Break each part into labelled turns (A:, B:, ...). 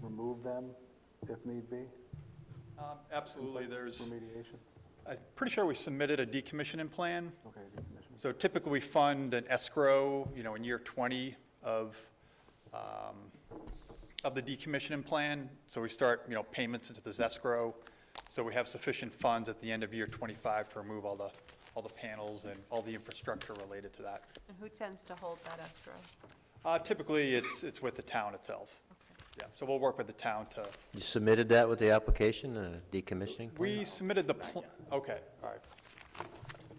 A: remove them if need be,
B: Um, Absolutely, there's,
A: remediation?
B: I'm pretty sure we submitted a decommissioning plan.
A: Okay, decommission.
B: So typically, we fund an escrow, you know, in year 20 of, um, of the decommissioning plan. So we start, you know, payments into this escrow. So we have sufficient funds at the end of year 25 to remove all the, all the panels and all the infrastructure related to that.
C: And who tends to hold that escrow?
B: Uh, Typically, it's, it's with the town itself. Yeah, so we'll work with the town to,
D: You submitted that with the application, uh, decommissioning?
B: we submitted the, pl- okay, all right.
D: I'm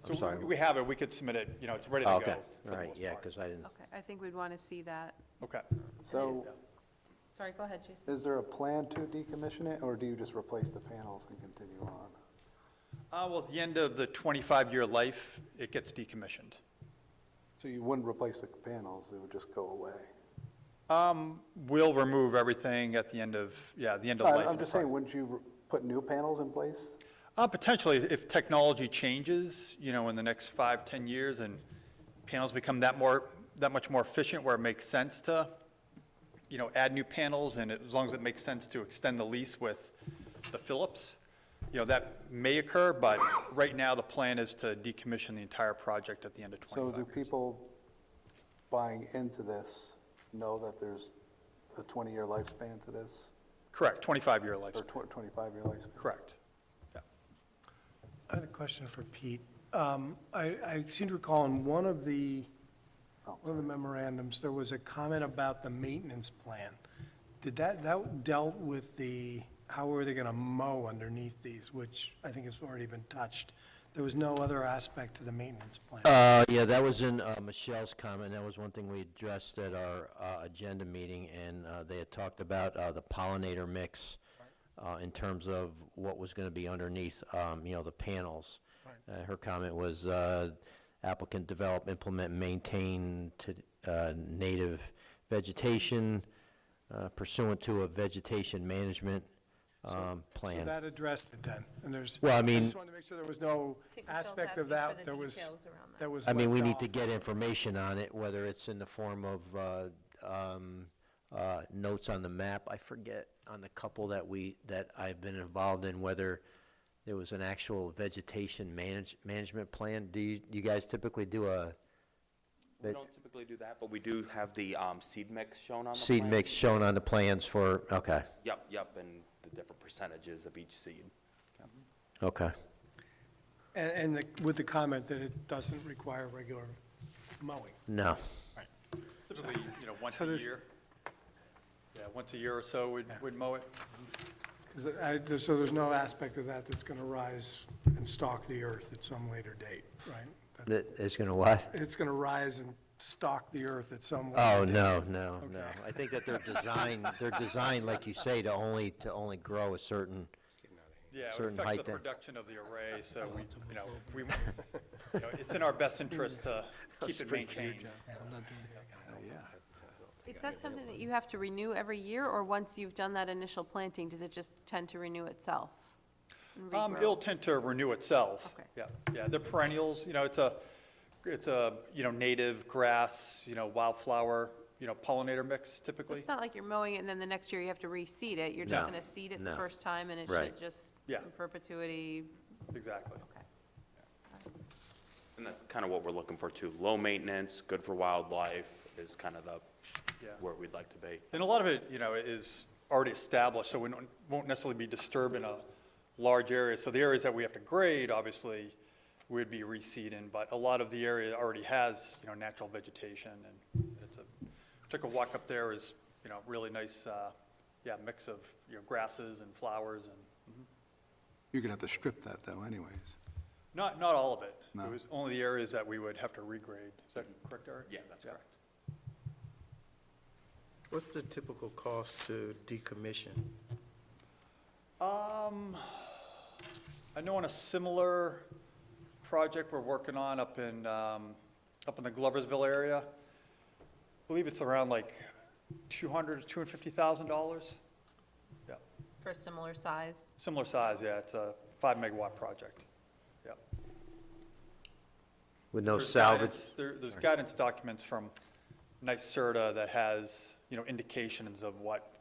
B: So
D: sorry.
B: we- we have it, we could submit it, you know, it's ready to
D: Oh,
B: go.
D: Okay,
B: for
D: all
B: the
D: right,
B: most
D: yeah,
B: part.
D: because I didn't,
C: Okay, I think we'd want to see that.
B: Okay.
A: So
C: Sorry, go ahead, Jason.
A: is there a plan to decommission it, or do you just replace the panels and continue on?
B: Uh, well, at the end of the 25-year life, it gets decommissioned.
A: So you wouldn't replace the panels, it would just go away?
B: Um, we'll remove everything at the end of, yeah, the end of life.
A: I- I'm
B: of the
A: just saying,
B: product.
A: wouldn't you re- put new panels in place?
B: Uh, potentially, if technology changes, you know, in the next five, 10 years, and panels become that more, that much more efficient where it makes sense to, you know, add new panels, and as long as it makes sense to extend the lease with the Phillips, you know, that may occur, but right now, the plan is to decommission the entire project at the end of 25
A: So
B: years.
A: do people buying into this know that there's a 20-year lifespan to this,
B: Correct, 25-year lifespan.
A: or 25-year lifespan?
B: Correct. Yeah.
E: I had a question for Pete. Um, I I seem to recall in one of the,
A: Oh.
E: one of the memorandums, there was a comment about the maintenance plan. Did that, that dealt with the, how were they going to mow underneath these, which I think has already been touched? There was no other aspect to the maintenance plan.
D: Uh, yeah, that was in uh, Michelle's comment, that was one thing we addressed at our uh, agenda meeting, and uh, they had talked about uh, the pollinator mix uh, in terms of what was going to be underneath, um, you know, the panels. Uh, Her comment was uh, applicant develop, implement, maintain to uh, native vegetation uh, pursuant to a vegetation management um, plan.
E: So that addressed it then, and there's.
D: Well, I mean-
E: just wanted to make sure there was no
C: think Michelle's
E: aspect of
C: asking for the
E: that that was,
C: details around that.
E: that was
D: I mean, we
E: left
D: need to
E: off.
D: get information on it, whether it's in the form of uh, um, uh, notes on the map. I forget on the couple that we, that I've been involved in, whether there was an actual vegetation manage, management plan. Do you, you guys typically do a
F: We
D: But-
F: don't typically do that, but we do have the um, seed mix shown on the
D: seed
F: plan.
D: mix shown on the plans for, okay,
F: Yep, yep, and the different percentages of each seed.
D: okay.
E: And, and the- with the comment that it doesn't require regular mowing.
D: No.
B: Typically, you know, once
E: So
B: a
E: there's-
B: year. Yeah, once a year or so, we'd, we'd mow it.
E: Is it- I- there- So there's no aspect of that that's going to rise and stalk the earth at some later date, right? That-
D: That is gonna what?
E: It's going to rise and stalk the earth at some
D: Oh,
E: later date.
D: no, no, no.
E: Okay.
D: I think that they're designed, they're designed, like you say, to only, to only grow a certain,
B: Yeah, it would
D: Certain
B: affect
D: height
B: the
D: then.
B: production of the array, so we, you know, we, you know, it's in our best interest to keep it maintained.
C: Is that something that you have to renew every year, or once you've done that initial planting, does it just tend to renew itself? and
B: Um,
C: regrow?
B: it'll tend to renew itself.
C: Okay.
B: Yeah, yeah, they're perennials, you know, it's a, it's a, you know, native grass, you know, wildflower, you know, pollinator mix
C: So
B: typically.
C: It's not like you're mowing it and then the next year you have to reseed it. You're just
D: No,
C: going to seed it the
D: no.
C: first time and it
D: Right.
C: should just
B: Yeah.
C: in perpetuity,
B: Exactly.
C: okay.
F: And that's kind of what we're looking for too. Low maintenance, good for wildlife is kind of the,
B: Yeah.
F: where we'd like to be.
B: And a lot of it, you know, is already established, so we don't- won't necessarily be disturbing a large area. So the areas that we have to grade, obviously, would be reseeding, but a lot of the area already has, you know, natural vegetation, and it's a, took a walk up there, is, you know, really nice, uh, yeah, mix of, you know, grasses and flowers, and
G: You're gonna have to strip that though anyways.
B: not, not all of it.
G: No.
B: It was only the areas that we would have to regrade. Is that correct, Eric?
F: Yeah, that's correct.
H: What's the typical cost to decommission?
B: Um, I know on a similar project we're working on up in, um, up in the Gloversville area, I believe it's around like two hundred, two hundred fifty thousand dollars. Yeah,
C: For a similar size?
B: similar size, yeah, it's a five megawatt project, yeah.
D: with no
B: There's
D: salvage.
B: guidance- There, there's guidance documents from NYSERDA that has, you know, indications of what